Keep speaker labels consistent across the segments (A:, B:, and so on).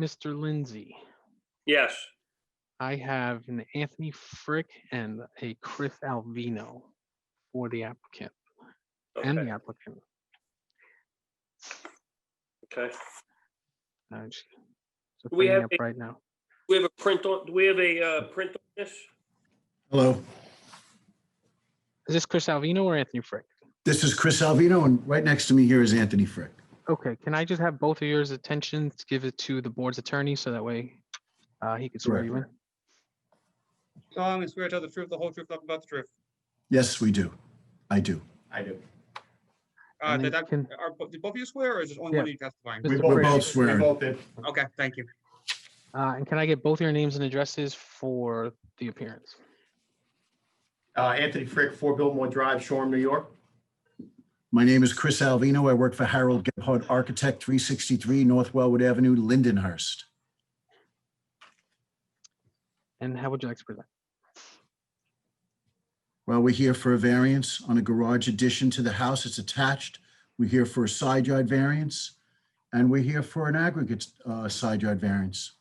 A: Mr. Lindsay,
B: Yes.
A: I have an Anthony Frick and a Chris Alvino for the applicant and the
B: Okay.
A: applicant.
B: Okay.
A: Uh, sh- so
B: Do we
A: bring it
B: have
A: up
B: a-
A: Right now.
B: We have a print on, do we have a uh, print on this?
C: Hello,
A: Is this Chris Alvino or Anthony Frick?
C: this is Chris Alvino, and right next to me here is Anthony Frick.
A: Okay, can I just have both of yours attention to give it to the board's attorney so that way uh, he can swear
C: Correct.
A: you in?
D: solemnly swear to tell the truth, the whole truth, nothing but the truth.
C: Yes, we do. I do.
E: I do.
D: Uh,
A: And
D: did
A: then
D: that,
A: can-
D: are, bo- did both of you swear or is just only one
A: Yeah.
D: of you testifying?
C: We
A: Mr.
C: both-
A: Frick,
C: both
E: We
C: swear.
E: both did.
D: Okay, thank you.
A: uh, And can I get both your names and addresses for the appearance?
E: Uh, Anthony Frick, Four Billmore Drive, Shoreham, New York.
C: My name is Chris Alvino. I work for Harold Gebhardt Architect, 363 North Wellwood Avenue, Lindenhurst.
A: And how would you like to present?
C: Well, we're here for a variance on a garage addition to the house. It's attached. We're here for a side yard variance, and we're here for an aggregate uh, side yard variance.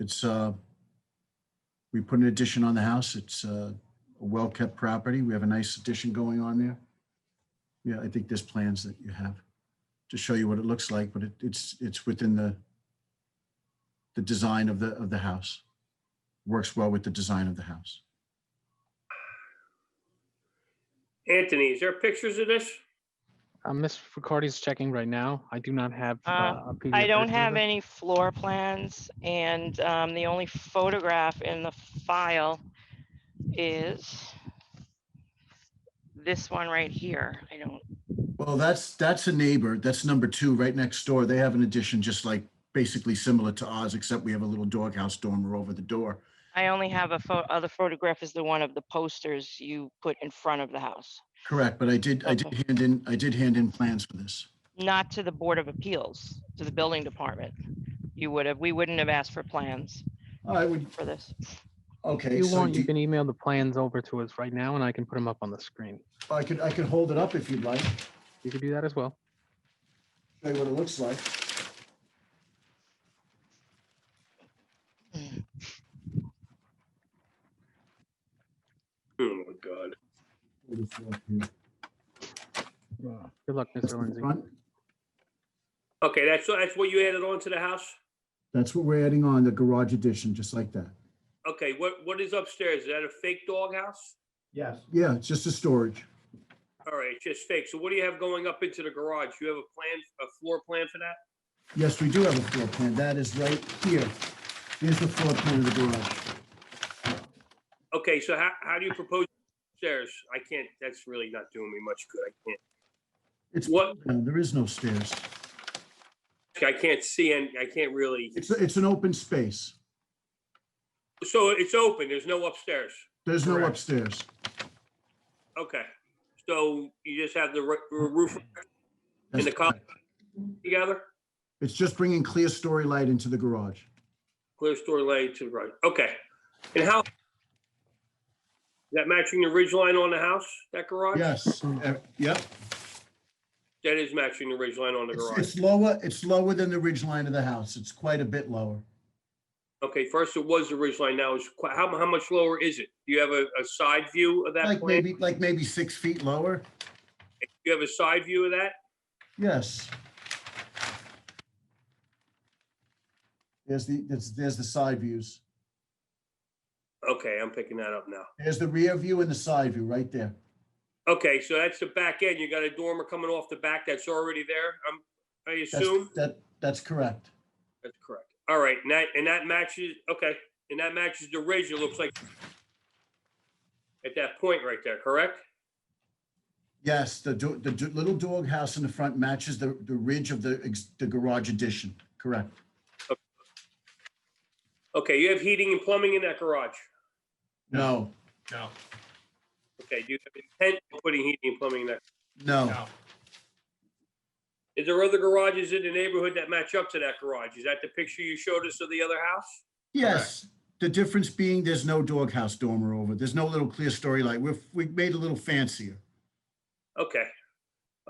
C: It's, uh, we put an addition on the house. It's uh, a well-kept property. We have a nice addition going on there. Yeah, I think there's plans that you have to show you what it looks like, but it- it's, it's within the, the design of the, of the house works well with the design of the house.
B: Anthony, is there pictures of this?
A: Uh, Ms. Ricardi's checking right now. I do not have.
F: Uh,
A: uh, a
F: I
A: PDF
F: don't
A: version of
F: have
A: it.
F: any floor plans and um, the only photograph in the file is this one right here. I don't,
C: Well, that's, that's a neighbor. That's number two, right next door. They have an addition just like basically similar to ours, except we have a little doghouse dormer over the door.
F: I only have a photo, other photograph is the one of the posters you put in front of the house,
C: Correct, but I did, I did
F: Okay.
C: hand in, I did hand in plans for this.
F: not to the Board of Appeals, to the building department. You would have, we wouldn't have asked for plans
C: I would,
F: for this.
C: okay,
A: If you
C: so
A: want, you
C: do-
A: can email the plans over to us right now and I can put them up on the screen.
C: I could, I could hold it up if you'd like, show
A: You could do that as well.
C: you what it looks like.
B: Oh, my God.
A: Good luck,
C: That's
A: Mr.
C: the
A: Lindsay.
C: front.
B: Okay, that's, that's what you added on to the house?
C: That's what we're adding on, the garage addition, just like that.
B: Okay, what, what is upstairs? Is that a fake doghouse?
E: Yes.
C: Yeah, it's just a storage.
B: All right, it's just fake. So what do you have going up into the garage? You have a plan, a floor plan for that?
C: Yes, we do have a floor plan. That is right here. Here's the floor plan of the garage.
B: Okay, so how, how do you propose stairs? I can't, that's really not doing me much good. I can't,
C: It's,
B: What-
C: no, there is no stairs.
B: I can't see and I can't really.
C: It's, it's an open space.
B: So it's open, there's no upstairs.
C: There's no
E: Correct.
C: upstairs.
B: Okay, so you just have the ro- roof
C: That's
B: the col-
C: correct.
B: together?
C: It's just bringing clear story light into the garage.
B: Clear story light to the right, okay. And how? Is that matching the ridge line on the house, that garage?
C: Yes,
B: Mm-hmm.
C: uh, yep.
B: That is matching the ridge line on the
C: It's,
B: garage.
C: it's lower, it's lower than the ridge line of the house. It's quite a bit lower.
B: Okay, first it was the ridge line, now it's, qui- how, how much lower is it? Do you have a, a side view of that
C: Like
B: plan? Do
C: maybe, like maybe six feet lower.
B: you have a side view of that?
C: Yes. There's the, there's, there's the side views.
B: Okay, I'm picking that up now.
C: There's the rear view and the side view right there.
B: Okay, so that's the back end, you got a dormer coming off the back that's already there, I'm, I
C: That's,
B: assume?
C: that, that's correct.
B: That's correct. All right, and that, and that matches, okay, and that matches the ridge, it looks like at that point right there, correct?
C: Yes, the, do- the do- little dog house in the front matches the, the ridge of the, ex- the garage addition, correct?
B: Okay, you have heating and plumbing in that garage.
C: No,
E: No.
B: Okay, do you have intent of putting heating and plumbing in that?
C: no,
E: No.
B: Is there other garages in the neighborhood that match up to that garage? Is that the picture you showed us of the other house?
C: yes. The difference being there's no doghouse dormer over, there's no little clear story light. We've, we've made it a little fancier.
B: Okay,